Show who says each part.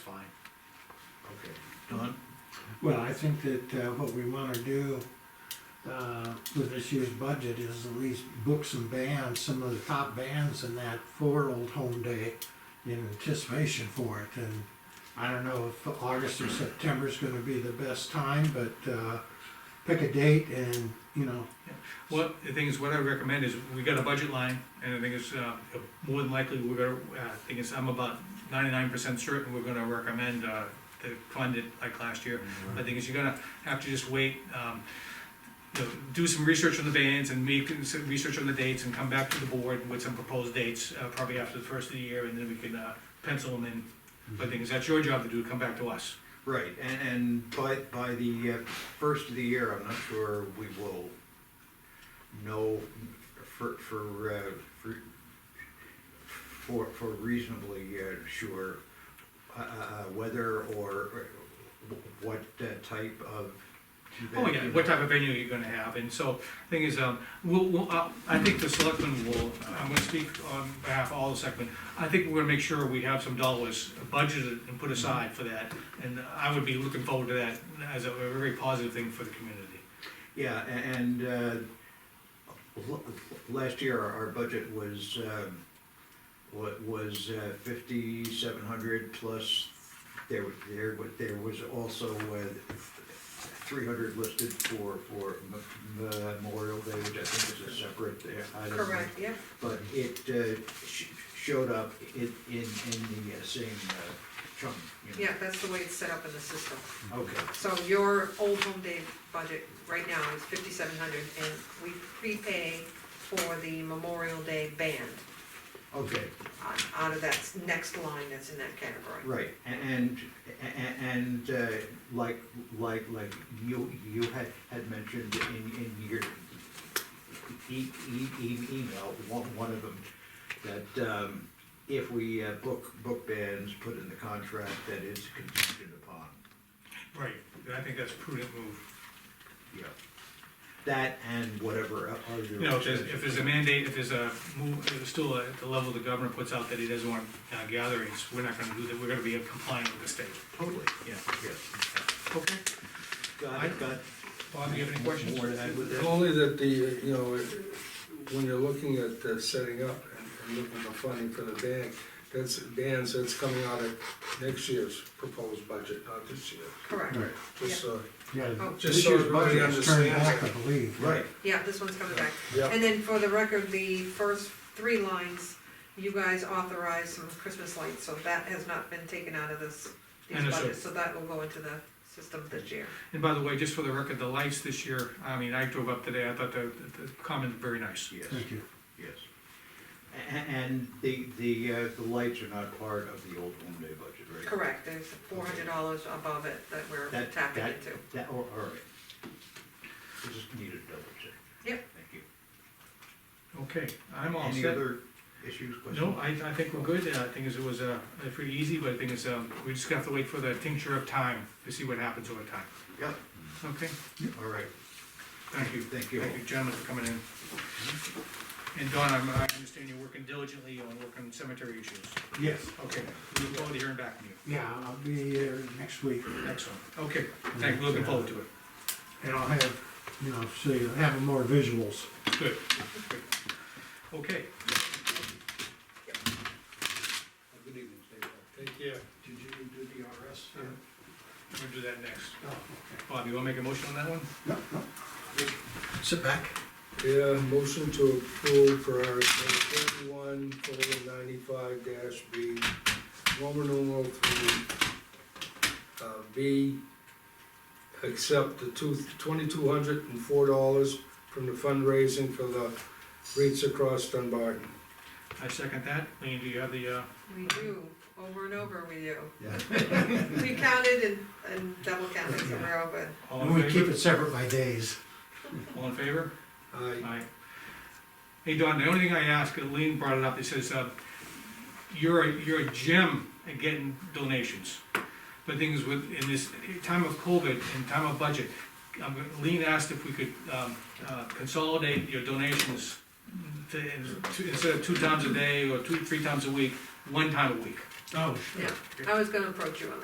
Speaker 1: fine.
Speaker 2: Okay.
Speaker 1: Don?
Speaker 3: Well, I think that uh, what we wanna do uh, with this year's budget is at least book some bands, some of the top bands in that for Old Home Day in anticipation for it, and I don't know if August or September is gonna be the best time, but uh, pick a date and, you know,
Speaker 1: Well, the thing is, what I recommend is, we got a budget line, and the thing is, uh, more than likely, we're gonna, uh, thing is, I'm about ninety-nine percent certain we're gonna recommend, uh, to fund it like last year. I think is you're gonna have to just wait, um, you know, do some research on the bands and make some research on the dates and come back to the board with some proposed dates, uh, probably after the first of the year, and then we can, uh, pencil them in. But the thing is, that's your job to do, come back to us.
Speaker 2: Right, and, and by, by the uh, first of the year, I'm not sure we will know for, for, uh, for, for, for reasonably uh, sure uh, uh, whether or what uh, type of.
Speaker 1: Oh, yeah, what type of venue you're gonna have, and so, thing is, um, we'll, we'll, uh, I think the selectmen will, I'm gonna speak on behalf of all the selectmen, I think we're gonna make sure we have some dollars budgeted and put aside for that, and I would be looking forward to that as a very positive thing for the community.
Speaker 2: Yeah, a- and, uh, l- last year, our budget was, um, wa- was uh, fifty-seven hundred plus, there, wa- there, wa- there was also, uh, three hundred listed for, for M- M- Memorial Day, which I think is a separate uh, item.
Speaker 4: Correct, yep,
Speaker 2: But it, uh, sh- showed up in, in, in the uh, same uh, chunk, you know.
Speaker 4: yeah, that's the way it's set up in the system.
Speaker 2: Okay,
Speaker 4: So your old home day budget right now is fifty-seven hundred, and we prepay for the Memorial Day band
Speaker 2: okay.
Speaker 4: out- out of that next line that's in that category.
Speaker 2: Right, a- and, a- and, uh, like, like, like you, you had, had mentioned in, in your e- e- e- email, one, one of them, that, um, if we uh, book, book bands, put in the contract that it's contingent upon,
Speaker 1: Right, and I think that's a prudent move.
Speaker 2: yeah. That and whatever other.
Speaker 1: You know, if there's, if there's a mandate, if there's a move, if there's still a, the level the governor puts out that he doesn't want uh, gatherings, we're not gonna do that, we're gonna be compliant with the state.
Speaker 2: Totally,
Speaker 1: Yeah.
Speaker 2: yes.
Speaker 1: Okay.
Speaker 2: Got it, got it.
Speaker 1: Bob, you have any questions?
Speaker 2: More to add with that?
Speaker 5: Only that the, you know, when you're looking at uh, setting up and- and looking for funding for the band, that's, bands, that's coming out of next year's proposed budget, not this year.
Speaker 4: Correct,
Speaker 3: Right.
Speaker 5: Just, uh,
Speaker 3: yeah,
Speaker 4: Oh.
Speaker 5: Just
Speaker 3: this
Speaker 5: so
Speaker 3: year's
Speaker 5: everybody
Speaker 3: budget is turned
Speaker 5: understands
Speaker 3: back, I
Speaker 5: it.
Speaker 3: believe.
Speaker 2: Right,
Speaker 4: yeah, this one's coming back.
Speaker 5: yeah,
Speaker 4: And then for the record, the first three lines, you guys authorized some Christmas lights, so that has not been taken out of this, these
Speaker 1: Understood.
Speaker 4: budgets, so that will go into the system this year.
Speaker 1: And by the way, just for the record, the lights this year, I mean, I drove up today, I thought the, the comment was very nice.
Speaker 2: yes.
Speaker 3: Thank you.
Speaker 2: Yes. A- And the, the, uh, the lights are not part of the old home day budget, right?
Speaker 4: Correct, there's four hundred dollars above it that we're
Speaker 2: That-
Speaker 4: tapping
Speaker 2: that-
Speaker 4: into.
Speaker 2: That, oh, all all right. I just needed to double check.
Speaker 4: Yep.
Speaker 2: Thank you.
Speaker 1: Okay, I'm all
Speaker 2: Any
Speaker 1: set.
Speaker 2: other issues, questions?
Speaker 1: No, I, I think we're good, Uh, I think is it was, uh, pretty easy, but I think it's, um, we just have to wait for the tincture of time to see what happens over time.
Speaker 2: Yep,
Speaker 1: Okay,
Speaker 2: all right.
Speaker 1: thank you.
Speaker 2: Thank you.
Speaker 1: Thank you, gentlemen, for coming in. And Don, I'm, I understand you're working diligently on working cemetery issues.
Speaker 3: Yes.
Speaker 1: Okay, we look forward to hearing back from you.
Speaker 3: Yeah, I'll be here next week.
Speaker 1: Excellent, okay, thank, you. looking forward to it.
Speaker 3: And I'll have, you know, so you'll have more visuals.
Speaker 1: Good, good. Okay,
Speaker 2: Good evening, Steve.
Speaker 5: thank you.
Speaker 3: Did you do the RS?
Speaker 1: we'll do that next.
Speaker 3: Oh, okay.
Speaker 1: Bob, you wanna make a motion on that one?
Speaker 3: No, no. Sit back.
Speaker 5: Yeah, motion to approve for our thirty-one, colon, ninety-five dash B, Roman numeral three, uh, B, accept the two, twenty-two hundred and four dollars from the fundraising for the Reach Across Dunbarton.
Speaker 1: I second that, Lean, do you have the, uh,
Speaker 4: We do, over and over we do.
Speaker 2: Yeah.
Speaker 4: We counted and, and double counted, so we're all good.
Speaker 1: all
Speaker 3: And we
Speaker 1: in
Speaker 3: keep
Speaker 1: favor?
Speaker 3: it separate by days.
Speaker 1: All in favor?
Speaker 5: Aye.
Speaker 1: Aye. Hey, Don, the only thing I ask, and Lean brought it up, he says, uh, you're, a- you're a gem at getting donations. But things with, in this time of COVID and time of budget, um, Lean asked if we could, um, uh, consolidate your donations to, to- instead of two times a day or two, three times a week, one time a week.
Speaker 3: Oh,
Speaker 4: yeah, I was gonna approach you on that.